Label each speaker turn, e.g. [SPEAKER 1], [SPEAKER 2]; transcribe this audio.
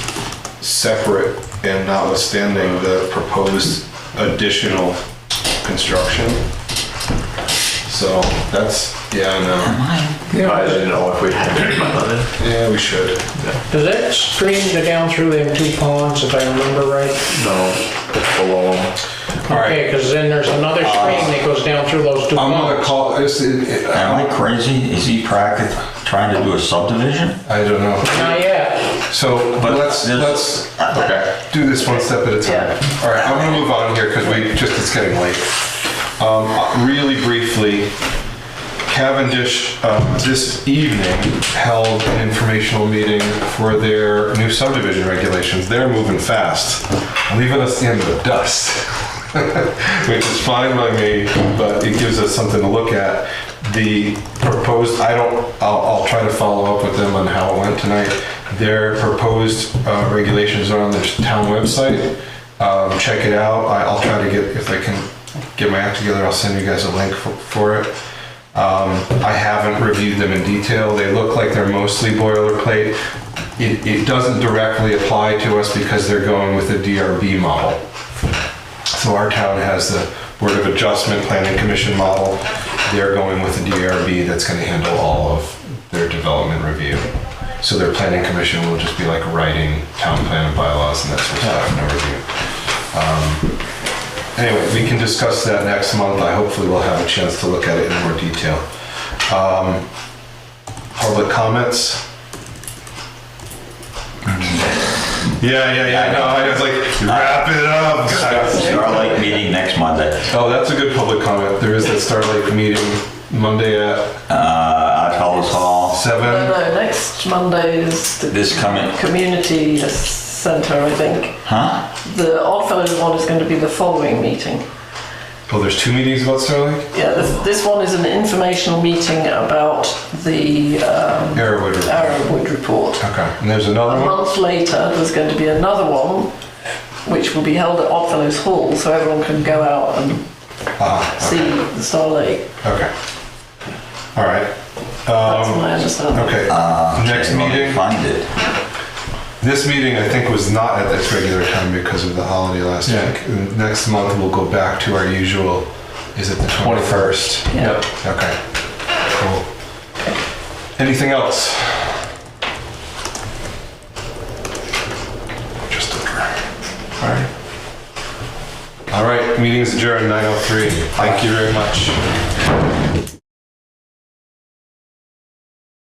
[SPEAKER 1] separate and notwithstanding the proposed additional construction. So that's, yeah, I
[SPEAKER 2] I didn't know if we had any money.
[SPEAKER 1] know. Yeah, we should.
[SPEAKER 3] Does that stream go down through them two ponds, if I remember right?
[SPEAKER 2] No, it's below Uh, them.
[SPEAKER 1] All right.
[SPEAKER 3] Okay, because then there's another stream that goes down through those two
[SPEAKER 1] I'm gonna
[SPEAKER 3] ponds.
[SPEAKER 1] call, this, it- it-
[SPEAKER 4] Am I crazy? Is he practicing, trying to do a subdivision?
[SPEAKER 1] I don't know.
[SPEAKER 3] Not yet.
[SPEAKER 1] So
[SPEAKER 4] But
[SPEAKER 1] let's,
[SPEAKER 4] there's-
[SPEAKER 1] let's do this one step at a time. All right, I'm gonna move on here because we, just, it's getting late. Um, Really briefly, Cavendish um, this evening held an informational meeting for their new subdivision regulations. They're moving fast, leaving us in the dust, which is fine by me, but it gives us something to look at. The proposed, I don't, I'll, I'll try to follow up with them on how it went tonight. Their proposed uh, regulations are on the town website. Um, Check it out. I- I'll try to get, if I can get my act together, I'll send you guys a link for- for it. Um, I haven't reviewed them in detail. They look like they're mostly boilerplate. It, it doesn't directly apply to us because they're going with a DRB model. So our town has the Board of Adjustment Planning Commission model. They're going with a DRB that's gonna handle all of their development review. So their planning commission will just be like writing town plan and bylaws and that sort of stuff, no review. Um, Anyway, we can discuss that next month. I hopefully will have a chance to look at it in more detail. Um, Public comments? Yeah, yeah, yeah, I know, I was like, wrap it up.
[SPEAKER 4] Starlight meeting next Monday.
[SPEAKER 1] Oh, that's a good public comment. There is that Starlight meeting Monday at
[SPEAKER 4] Uh, at Fellows Hall,
[SPEAKER 5] No,
[SPEAKER 1] seven.
[SPEAKER 5] no, next Monday is the
[SPEAKER 4] this coming,
[SPEAKER 5] community centre, I think.
[SPEAKER 4] huh?
[SPEAKER 5] The Oddfellows one is going to be the following meeting.
[SPEAKER 1] Oh, there's two meetings about Starlight?
[SPEAKER 5] Yeah, this, this one is an informational meeting about the um,
[SPEAKER 1] Arrowwood. Okay,
[SPEAKER 5] Arrowwood report.
[SPEAKER 1] and there's
[SPEAKER 5] A
[SPEAKER 1] another one?
[SPEAKER 5] month later, there's going to be another one, which will be held at Oddfellows Hall, so everyone can go out and
[SPEAKER 1] Ah,
[SPEAKER 5] see the Starlight.
[SPEAKER 1] okay. All right,
[SPEAKER 5] That's my understanding.
[SPEAKER 1] okay. Next
[SPEAKER 4] Okay, let me
[SPEAKER 1] meeting?
[SPEAKER 4] uh, Find it.
[SPEAKER 1] This meeting, I think, was not at its regular time because of the holiday last week. Uh, Next month, we'll go back to our usual, is it the 21st?
[SPEAKER 5] Yeah.
[SPEAKER 1] Okay, cool. Anything else? Just a All right. oh All right, meeting's adjourned 9:03. Thank you very much.